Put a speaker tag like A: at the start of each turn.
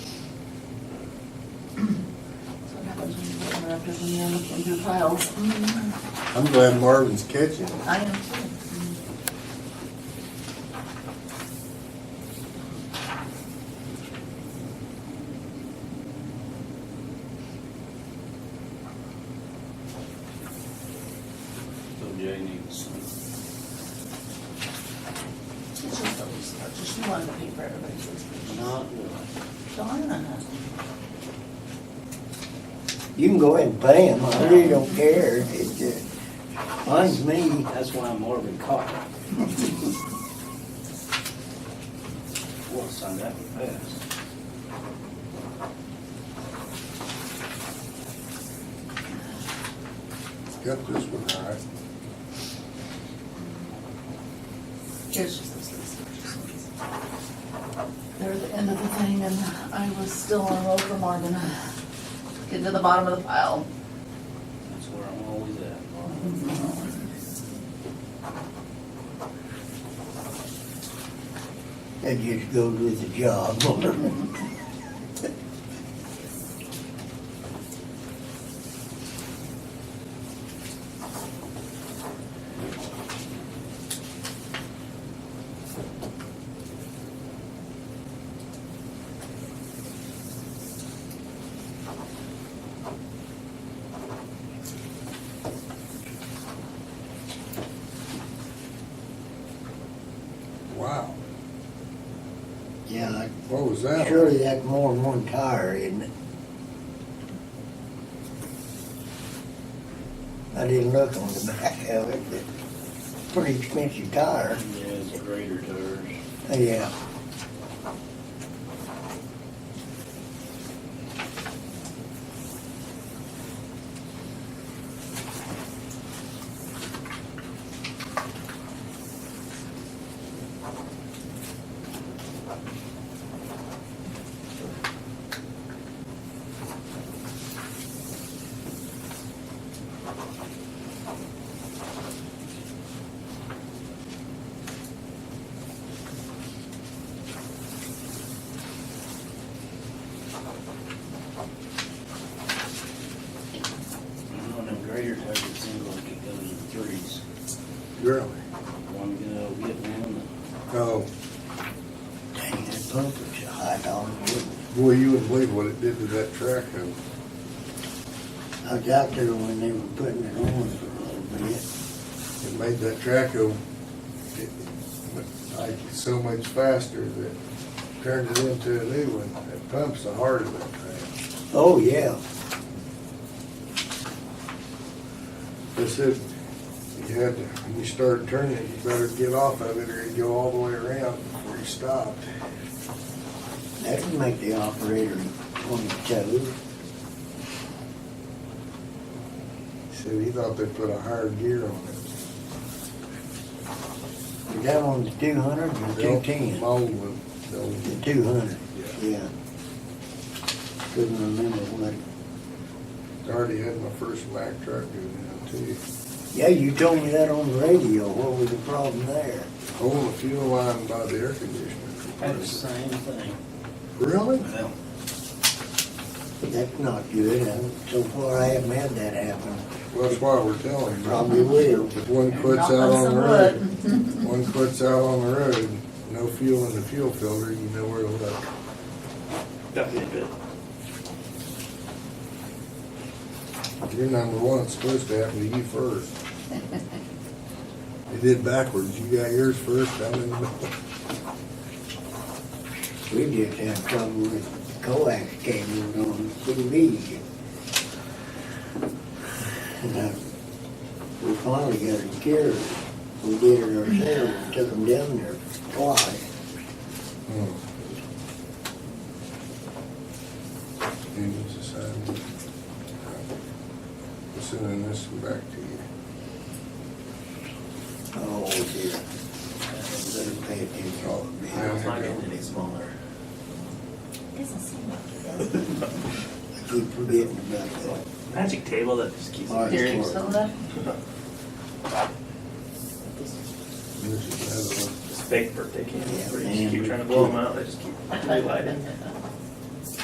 A: because when you're looking through files.
B: Mm-hmm. I'm glad Marvin's catching. it.
A: I am too.
C: So Jay needs some.
A: It's just those, I just wanted to pay for everybody's subscription.
C: Not really.
A: Darn.
D: You can go ahead and pay them, I really don't care, it just, mine's me.
C: That's why I'm more of a cop. Well, son, that would pass.
B: Got this one, all right.
A: It's just those subscriptions. They're the end of the thing and I was still on road for Morgan. Getting to the bottom of the pile.
C: That's where I'm always at. Laura.
D: That just goes with the job.
B: Wow,
D: Yeah,
B: what was
D: like,
B: that?
D: surely that's more than one tire, isn't it? I didn't look on the back of it, but pretty expensive tire,
C: Yeah, it's greater to hers.
D: yeah.
C: You know, them greater tires, it seems like it goes in threes.
B: Really?
C: One go, get one,
B: Oh,
D: Dang, that pumper's a high dollar, wouldn't it?
B: boy, you wouldn't believe what it did to that track. though.
D: I was out there when they were putting it on for a little bit.
B: It made that track go, it- like, so much faster that turned it into a new one. That pump's the heart of that thing.
D: Oh, yeah.
B: They said, you had to, when you started turning it, you better get off of it or you go all the way around before you stopped.
D: That would make the operator on his toes.
B: Said he thought they put a higher gear on it.
D: Is that on the two hundred or two ten?
B: The old one, the old one.
D: The two hundred,
B: Yeah.
D: yeah. Couldn't remember what.
B: I already had my first Mack truck doing that too.
D: Yeah, you told me that on the radio. What was the problem there?
B: Holding the fuel line by the air conditioner.
C: That's the same thing.
B: Really?
C: Well,
D: That's not good. Uh, So far, I haven't had that happen.
B: Well, that's why we're telling you.
D: Probably will.
B: If one quits
A: Knock
B: out
A: on
B: on
A: some
B: the road,
A: wood.
B: one quits out on the road, no fuel in the fuel filter, you know where to look.
C: that did it.
B: You're number one, it's supposed to happen to you first. It did backwards, you got yours first, I'm in the middle.
D: We just had trouble with coax cables on TV. And uh, we finally got it cured. We did it ourselves, and took them down there twice.
B: Hmm. Union Society. I'm Sending this one back to you.
D: Oh, dear. Better pay attention.
B: Oh,
D: man.
B: yeah.
E: not getting any smaller.
A: Doesn't seem like it does.
D: I keep forgetting about that.
E: Magic table that just keeps.
D: All right.
A: Here, you still there?
B: Here's another one.
E: Just big birthday candles,
D: Yeah,
E: where you just
D: man.
E: keep trying to blow them out, they just keep relighting.
A: Uh,